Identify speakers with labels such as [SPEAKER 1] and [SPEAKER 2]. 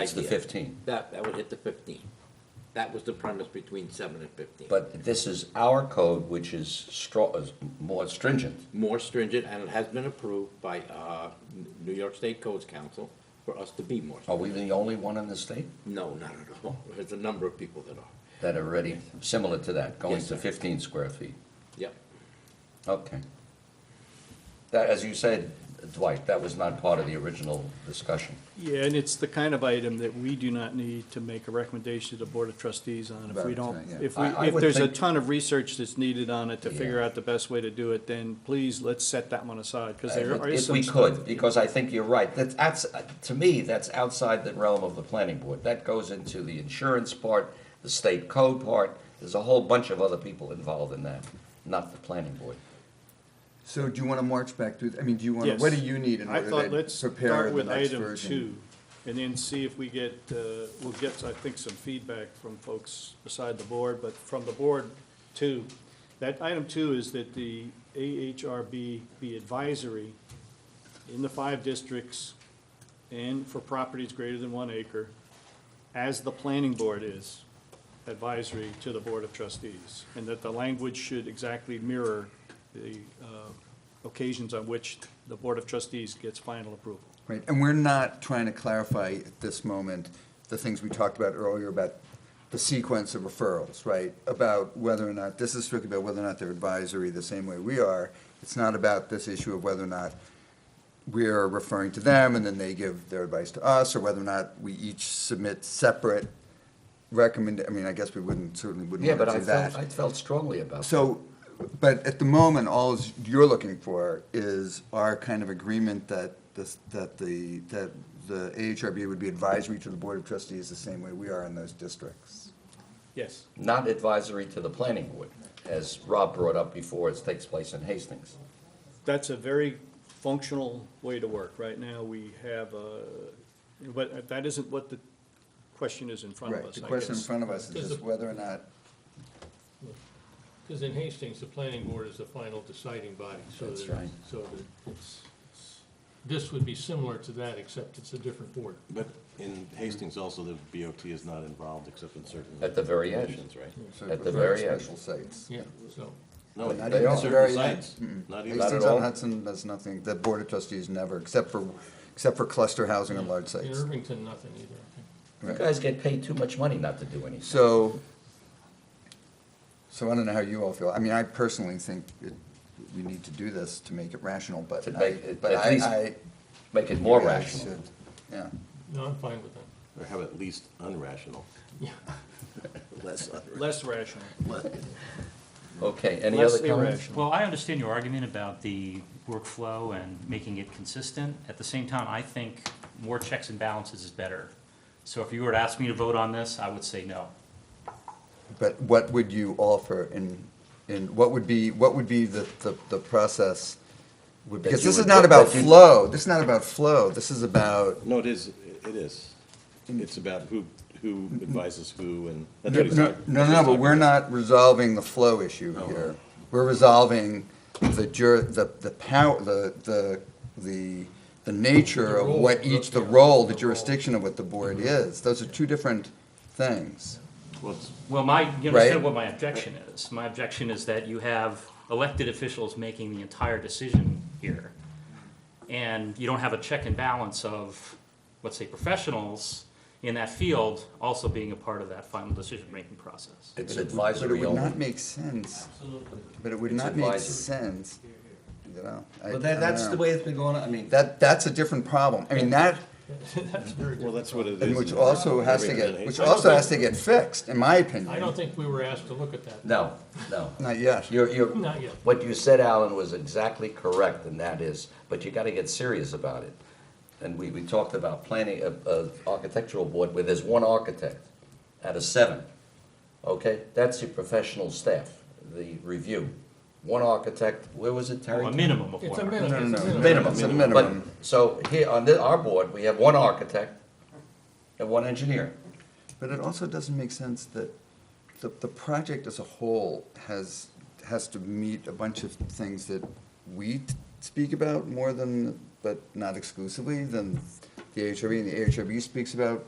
[SPEAKER 1] It's the
[SPEAKER 2] idea.
[SPEAKER 1] 15.
[SPEAKER 2] That, that would hit the fifteen. That was the premise between seven and fifteen.
[SPEAKER 1] But this is our code, which is stro- is more stringent.
[SPEAKER 2] More stringent, and it has been approved by, uh, N- New York State Codes Council for us to be more.
[SPEAKER 1] Are we the only one in the state
[SPEAKER 2] No, not at all. There's a number of people that are.
[SPEAKER 1] that are ready, similar to that, going
[SPEAKER 2] Yes,
[SPEAKER 1] to
[SPEAKER 2] sir.
[SPEAKER 1] 15 square feet?
[SPEAKER 2] Yep.
[SPEAKER 1] Okay. That, as you said, Dwight, that was not part of the original discussion.
[SPEAKER 3] Yeah, and it's the kind of item that we do not need to make a recommendation to the Board of Trustees on. If we
[SPEAKER 4] Right,
[SPEAKER 3] don't,
[SPEAKER 4] yeah.
[SPEAKER 3] if we,
[SPEAKER 1] I- I
[SPEAKER 3] if
[SPEAKER 1] would
[SPEAKER 3] there's a
[SPEAKER 1] think-
[SPEAKER 3] ton of research that's needed on it to figure
[SPEAKER 1] Yeah.
[SPEAKER 3] out the best way to do it, then please, let's set that one aside, because there
[SPEAKER 1] If
[SPEAKER 3] is
[SPEAKER 1] Uh, if
[SPEAKER 3] some
[SPEAKER 1] we
[SPEAKER 3] stuff.
[SPEAKER 1] could, because I think you're right. That's, that's, to me, that's outside the realm of the planning board. That goes into the insurance part, the state code part. There's a whole bunch of other people involved in that, not the planning board.
[SPEAKER 4] So do you want to march back through, I mean, do you want, to?
[SPEAKER 3] Yes.
[SPEAKER 4] what do you need in
[SPEAKER 3] I thought,
[SPEAKER 4] order
[SPEAKER 3] let's
[SPEAKER 4] to prepare
[SPEAKER 3] start
[SPEAKER 4] the
[SPEAKER 3] with
[SPEAKER 4] next
[SPEAKER 3] item two,
[SPEAKER 4] version?
[SPEAKER 3] and then see if we get, uh, we'll get, I think, some feedback from folks beside the board, but from the board, too. That item two is that the AHRB be advisory in the five districts and for properties greater than one acre, as the planning board is advisory to the Board of Trustees, and that the language should exactly mirror the uh, occasions on which the Board of Trustees gets final approval.
[SPEAKER 4] Right, and we're not trying to clarify at this moment the things we talked about earlier about the sequence of referrals, right? About whether or not, this is strictly about whether or not they're advisory the same way we are. It's not about this issue of whether or not we're referring to them and then they give their advice to us, or whether or not we each submit separate recommend, I mean, I guess we wouldn't, certainly wouldn't
[SPEAKER 1] Yeah, but
[SPEAKER 4] want to
[SPEAKER 1] I
[SPEAKER 4] do that.
[SPEAKER 1] felt, I felt strongly about that.
[SPEAKER 4] So, but at the moment, all is- you're looking for is our kind of agreement that this, that the, that the AHRB would be advisory to the Board of Trustees the same way we are in those districts.
[SPEAKER 3] Yes.
[SPEAKER 1] Not advisory to the planning board, as Rob brought up before, it takes place in Hastings.
[SPEAKER 3] That's a very functional way to work. Right now, we have, a- but that isn't what the question is in front of
[SPEAKER 4] Right,
[SPEAKER 3] us,
[SPEAKER 4] the
[SPEAKER 3] I
[SPEAKER 4] question in
[SPEAKER 3] guess.
[SPEAKER 4] front of us is
[SPEAKER 5] Does
[SPEAKER 4] just
[SPEAKER 5] the-
[SPEAKER 4] whether or not,
[SPEAKER 5] Because in Hastings, the planning board is the final deciding body, so
[SPEAKER 1] That's
[SPEAKER 5] that,
[SPEAKER 1] right.
[SPEAKER 5] so that it's, it's- this would be similar to that, except it's a different board.
[SPEAKER 6] But in Hastings also, the BOT is not involved except in certain.
[SPEAKER 1] At the very end.
[SPEAKER 6] conditions, Right?
[SPEAKER 4] so
[SPEAKER 1] At the
[SPEAKER 4] very
[SPEAKER 1] very end.
[SPEAKER 4] special sites.
[SPEAKER 5] Yeah, so,
[SPEAKER 6] No,
[SPEAKER 4] But not
[SPEAKER 6] they
[SPEAKER 4] even
[SPEAKER 6] are
[SPEAKER 4] at the very uh,
[SPEAKER 6] certain sites.
[SPEAKER 4] end.
[SPEAKER 6] Not even.
[SPEAKER 1] Not at
[SPEAKER 4] Hastings
[SPEAKER 1] all.
[SPEAKER 4] on Hudson, that's nothing, the Board of Trustees never, except for, except for cluster housing on large
[SPEAKER 5] in
[SPEAKER 4] sites.
[SPEAKER 5] Irvington, nothing either. I think.
[SPEAKER 1] You guys get paid too much money not to do anything.
[SPEAKER 4] So, so I don't know how you all feel. I mean, I personally think it- we need to do this to make it rational, but
[SPEAKER 1] To
[SPEAKER 4] I,
[SPEAKER 1] make it-
[SPEAKER 4] but
[SPEAKER 1] at
[SPEAKER 4] I,
[SPEAKER 1] least
[SPEAKER 4] I.
[SPEAKER 1] Make it more
[SPEAKER 4] you guys
[SPEAKER 1] rational.
[SPEAKER 4] should- Yeah,
[SPEAKER 5] No, I'm fine with that.
[SPEAKER 6] Or have at least unrational,
[SPEAKER 4] Mm-hmm.
[SPEAKER 5] Yeah,
[SPEAKER 6] less unrational.
[SPEAKER 3] Less rational.
[SPEAKER 1] Okay, any
[SPEAKER 3] Less
[SPEAKER 1] other comments?
[SPEAKER 3] irrational.
[SPEAKER 7] Well, I understand your argument about the workflow and making it consistent. At the same time, I think more checks and balances is better. So if you were to ask me to vote on this, I would say no.
[SPEAKER 4] but what would you offer in, in, what would be, what would be the, the, the process?
[SPEAKER 1] Would-
[SPEAKER 4] Because
[SPEAKER 1] that you
[SPEAKER 4] this is
[SPEAKER 1] would-
[SPEAKER 4] not
[SPEAKER 1] that
[SPEAKER 4] about
[SPEAKER 1] you-
[SPEAKER 4] flow, this is not about flow, this is about,
[SPEAKER 6] No, it is, it is.
[SPEAKER 4] Mm-hmm.
[SPEAKER 6] It's about who, who advises who and. that's
[SPEAKER 4] no,
[SPEAKER 6] what he's
[SPEAKER 4] no,
[SPEAKER 6] talking-
[SPEAKER 4] no,
[SPEAKER 6] that's what
[SPEAKER 4] no,
[SPEAKER 6] he's
[SPEAKER 4] but
[SPEAKER 6] talking
[SPEAKER 4] we're
[SPEAKER 6] about.
[SPEAKER 4] not resolving the flow issue
[SPEAKER 6] No.
[SPEAKER 4] here. We're resolving the jur, the, the power, the, the, the, the nature
[SPEAKER 5] The
[SPEAKER 4] of
[SPEAKER 5] role,
[SPEAKER 4] what
[SPEAKER 5] the-
[SPEAKER 4] each, the
[SPEAKER 5] yeah,
[SPEAKER 4] role, the
[SPEAKER 5] the role.
[SPEAKER 4] jurisdiction of what the board is. Those are two different things.
[SPEAKER 6] Well, it's-
[SPEAKER 7] Well, my, you
[SPEAKER 4] Right.
[SPEAKER 7] understand what my objection is. My objection is that you have elected officials making the entire decision here. And you don't have a check and balance of, let's say, professionals in that field also being a part of that final decision-making process.
[SPEAKER 1] It's
[SPEAKER 4] But it
[SPEAKER 1] advisory
[SPEAKER 4] would not
[SPEAKER 1] only.
[SPEAKER 4] make sense. But it would
[SPEAKER 1] It's
[SPEAKER 4] not make
[SPEAKER 1] advisory.
[SPEAKER 4] sense, you know? I-
[SPEAKER 8] But
[SPEAKER 4] I
[SPEAKER 8] that,
[SPEAKER 4] don't
[SPEAKER 8] that's the
[SPEAKER 4] know.
[SPEAKER 8] way it's been going on, I mean,
[SPEAKER 4] That, that's a different problem. I mean, that,
[SPEAKER 5] that's very
[SPEAKER 6] Well,
[SPEAKER 5] different.
[SPEAKER 6] that's what it is.
[SPEAKER 4] and which
[SPEAKER 6] in
[SPEAKER 4] also has to
[SPEAKER 6] Irvington and
[SPEAKER 4] get, which
[SPEAKER 6] Hastings.
[SPEAKER 4] also has to get fixed, in my
[SPEAKER 5] I
[SPEAKER 4] opinion.
[SPEAKER 5] don't think we were asked to look at that.
[SPEAKER 1] No, no.
[SPEAKER 4] Not yet.
[SPEAKER 1] You're, you're,
[SPEAKER 5] Not yet.
[SPEAKER 1] what you said, Alan, was exactly correct, and that is, but you gotta get serious about it. And we, we talked about planning, a, a architectural board where there's one architect out of seven, okay? That's your professional staff, the review. One architect, where was it, Terry?
[SPEAKER 7] A minimum of one.
[SPEAKER 5] It's a
[SPEAKER 7] article.
[SPEAKER 5] minimum.
[SPEAKER 4] No, no,
[SPEAKER 5] it's a
[SPEAKER 4] no.
[SPEAKER 1] Minimum.
[SPEAKER 4] It's a
[SPEAKER 1] But-
[SPEAKER 4] minimum.
[SPEAKER 1] So here, on the, our board, we have one architect and one engineer.
[SPEAKER 4] But it also doesn't make sense that the, the project as a whole has, has to meet a bunch of things that we t- speak about more than, but not exclusively, than the AHRB, and the AHRB speaks about